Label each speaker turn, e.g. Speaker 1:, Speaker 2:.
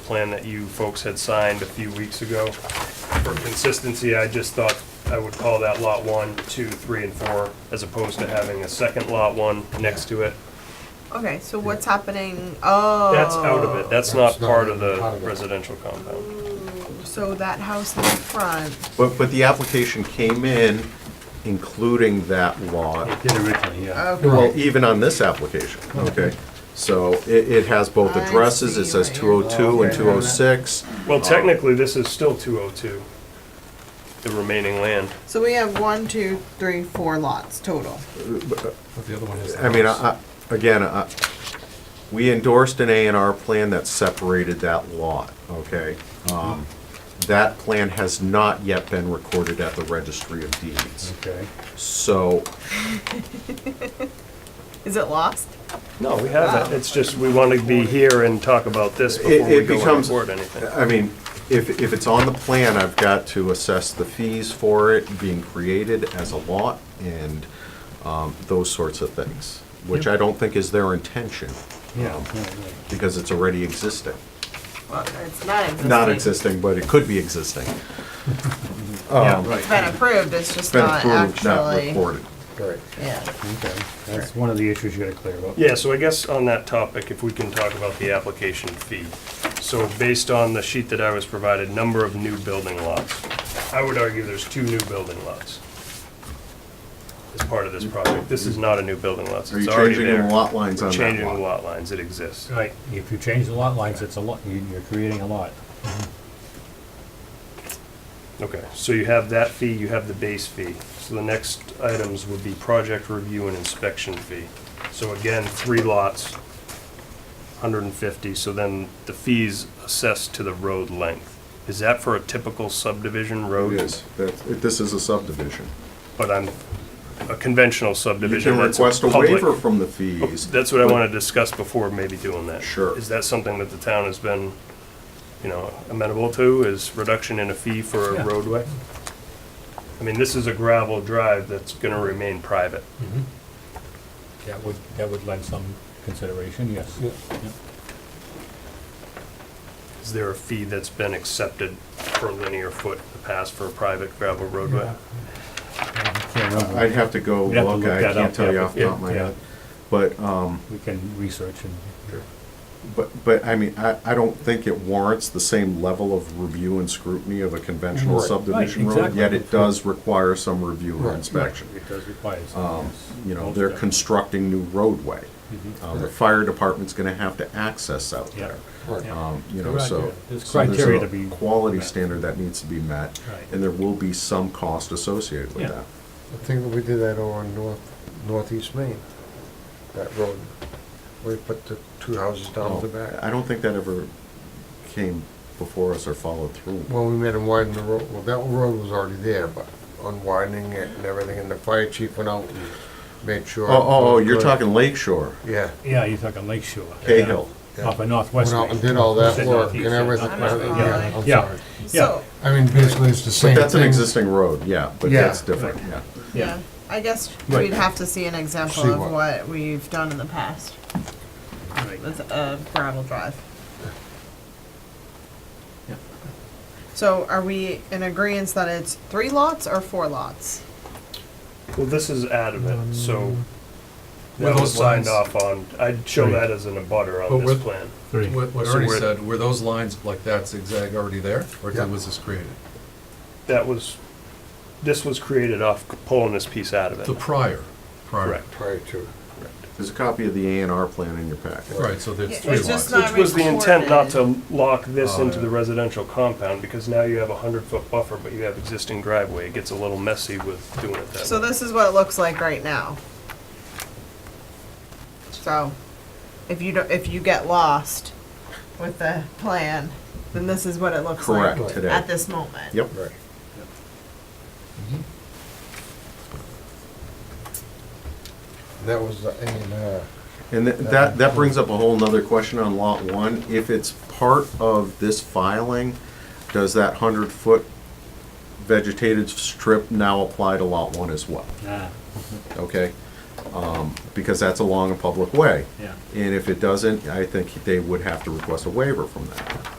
Speaker 1: plan that you folks had signed a few weeks ago. For consistency, I just thought I would call that Lot 1, 2, 3, and 4, as opposed to having a second Lot 1 next to it.
Speaker 2: Okay, so what's happening? Oh.
Speaker 1: That's out of it, that's not
Speaker 3: That's not
Speaker 1: part of
Speaker 3: part
Speaker 1: the
Speaker 3: of it.
Speaker 1: residential compound.
Speaker 2: So that house in the front,
Speaker 4: But, but the application came in including that lot,
Speaker 5: Did originally, yeah.
Speaker 2: okay.
Speaker 4: well, even on this application, okay? So it, it has both
Speaker 2: I
Speaker 4: addresses, it
Speaker 2: see
Speaker 4: says
Speaker 2: what
Speaker 4: two oh
Speaker 2: you're-
Speaker 4: two and
Speaker 5: Okay.
Speaker 4: two oh six.
Speaker 1: Well, technically, this is still 202, the remaining land.
Speaker 2: So we have one, two, three, four lots total.
Speaker 5: But the other one is.
Speaker 4: I mean, I, I- again, I, we endorsed an A and R plan that separated that lot, okay? Um, That plan has not yet been recorded at the registry of deeds,
Speaker 5: Okay.
Speaker 4: so
Speaker 2: Is it lost?
Speaker 1: No, we haven't, it's just, we want to be here and talk about this before
Speaker 4: it
Speaker 1: we go and
Speaker 4: becomes-
Speaker 1: record anything.
Speaker 4: I mean, if, if it's on the plan, I've got to assess the fees for it being created as a lot and um, those sorts of things, which I don't think is their intention, um,
Speaker 5: Yeah. right, right.
Speaker 4: because it's already existing.
Speaker 2: Well, it's not existing.
Speaker 4: Not existing, but it could be existing. Um,
Speaker 5: Yeah, right.
Speaker 2: It's been approved, it's just
Speaker 4: It's been
Speaker 2: not
Speaker 4: approved, not
Speaker 2: actually.
Speaker 4: recorded.
Speaker 5: Right.
Speaker 2: Yeah.
Speaker 5: Okay. That's one of the issues you gotta clear up.
Speaker 1: Yeah, so I guess on that topic, if we can talk about the application fee. So based on the sheet that I was provided, number of new building lots, I would argue there's two new building lots as part of this project. This is not a new building lot,
Speaker 4: Are
Speaker 1: it's
Speaker 4: you
Speaker 1: already
Speaker 4: changing
Speaker 1: there.
Speaker 4: the lot lines on that
Speaker 1: Changing the
Speaker 4: lot?
Speaker 1: lot lines, it exists.
Speaker 5: Right, if you change the lot lines, it's a lot, you- you're creating a lot.
Speaker 1: Okay, so you have that fee, you have the base fee. So the next items would be project review and inspection fee. So again, three lots, 150, so then the fees assessed to the road length. Is that for a typical subdivision road?
Speaker 4: It is. That's- it- This is a subdivision.
Speaker 1: But I'm, a conventional
Speaker 4: You
Speaker 1: subdivision
Speaker 4: can
Speaker 1: that's
Speaker 4: request a
Speaker 1: public- Oh,
Speaker 4: waiver from the fees.
Speaker 1: That's what I want to discuss before maybe doing that.
Speaker 4: Sure.
Speaker 1: Is that something that the town has been, you know, amenable to, is reduction in a fee for a
Speaker 5: Yeah.
Speaker 1: roadway? I mean, this is a gravel drive that's going to remain private.
Speaker 5: That would, that would lend some consideration, yes.
Speaker 1: Is there a fee that's been accepted per linear foot in the past for a private gravel roadway?
Speaker 5: Can't remember.
Speaker 4: I'd have to go
Speaker 5: We'd have to
Speaker 4: look,
Speaker 5: look
Speaker 4: I
Speaker 5: that
Speaker 4: can't
Speaker 5: up,
Speaker 4: tell you
Speaker 5: yeah,
Speaker 4: off the top of my
Speaker 5: yeah.
Speaker 4: head. But, um,
Speaker 5: We can research and.
Speaker 4: But, but I mean, I, I don't think it warrants the same level of review and scrutiny of a conventional
Speaker 5: Right.
Speaker 4: subdivision
Speaker 5: Right,
Speaker 4: road, yet
Speaker 5: exactly.
Speaker 4: it does require some review and inspection.
Speaker 5: It does require some.
Speaker 4: Um,
Speaker 5: yes.
Speaker 4: You know, they're constructing new roadway.
Speaker 5: Mhm.
Speaker 4: Uh, The fire department's gonna have to access out
Speaker 5: Yeah.
Speaker 4: there.
Speaker 5: Yeah.
Speaker 4: Um, You know,
Speaker 5: Right, yeah.
Speaker 4: so.
Speaker 5: There's
Speaker 4: so there's
Speaker 5: criteria
Speaker 4: a
Speaker 5: to be
Speaker 4: Quality
Speaker 5: met.
Speaker 4: standard that needs to be met,
Speaker 5: Right.
Speaker 4: and there will be some cost associated with
Speaker 5: Yeah.
Speaker 4: that.
Speaker 3: I think we did that over in north, northeast Maine, that road. We put the two houses down
Speaker 4: Oh,
Speaker 3: the back.
Speaker 4: I don't think that ever came before us or followed through.
Speaker 3: Well, we made him widen the road, well, that road was already there, but unwidening it and everything, and the fire chief went out and made
Speaker 4: Oh,
Speaker 3: sure.
Speaker 4: oh, oh, you're
Speaker 3: Good.
Speaker 4: talking Lake Shore,
Speaker 3: Yeah.
Speaker 5: Yeah, you're talking Lake Shore.
Speaker 4: Cahill.
Speaker 3: yeah.
Speaker 5: Up in northwest.
Speaker 3: Went out and
Speaker 5: Maine.
Speaker 3: did all
Speaker 5: Said
Speaker 3: that work and
Speaker 5: northeast, yeah,
Speaker 3: everything.
Speaker 5: not
Speaker 2: Yeah.
Speaker 5: west.
Speaker 3: Yeah, I'm
Speaker 5: Yeah.
Speaker 3: sorry.
Speaker 2: So,
Speaker 3: I mean, basically, it's the same
Speaker 4: But
Speaker 3: thing.
Speaker 4: that's an existing road, yeah, but
Speaker 3: Yeah.
Speaker 4: that's different, yeah.
Speaker 2: yeah, I guess
Speaker 4: Right.
Speaker 2: we'd have to see an example
Speaker 3: See
Speaker 2: of
Speaker 3: what-
Speaker 2: what we've done in the past
Speaker 5: Right.
Speaker 2: with a gravel drive.
Speaker 5: Yeah.
Speaker 2: So are we in agreement that it's three lots or four lots?
Speaker 1: Well, this is out of it, so
Speaker 6: Were
Speaker 1: that was
Speaker 6: those
Speaker 1: signed
Speaker 6: lines-
Speaker 1: off on. I'd show
Speaker 5: Right.
Speaker 1: that as an abutter
Speaker 6: But
Speaker 1: on this
Speaker 6: with-
Speaker 1: plan.
Speaker 5: Three.
Speaker 6: What, what
Speaker 1: So
Speaker 6: Ernie
Speaker 1: we're-
Speaker 6: said, were those lines like that zigzag already there, or
Speaker 3: Yeah.
Speaker 6: was this created?
Speaker 1: That was, this was created off pulling this piece out of
Speaker 6: The
Speaker 1: it.
Speaker 6: prior, prior.
Speaker 1: Correct.
Speaker 3: Prior to.
Speaker 4: There's a copy of the A and R plan in your packet.
Speaker 6: Right, so
Speaker 2: Yeah,
Speaker 6: there's three
Speaker 2: it's just
Speaker 6: lots.
Speaker 2: not-
Speaker 1: Which was the intent not to lock this
Speaker 6: Oh,
Speaker 1: into
Speaker 6: yeah.
Speaker 1: the residential compound, because now you have a hundred-foot buffer, but you have existing driveway. It gets a little messy with doing it that way.
Speaker 2: So this is what it looks like right now. So, if you don't, if you get lost with the plan, then this is what it looks
Speaker 4: Correct,
Speaker 2: like
Speaker 4: today.
Speaker 2: at this moment.
Speaker 4: Yep.
Speaker 3: Right. That was the, and, uh,
Speaker 4: And tha- that, that brings up a whole nother question on lot one. If it's part of this filing, does that hundred foot vegetated strip now apply to lot one as well?
Speaker 5: Ah,
Speaker 4: Okay? Um, Because that's along a public way.
Speaker 5: yeah.
Speaker 4: And if it doesn't, I think they would have to request a waiver from that.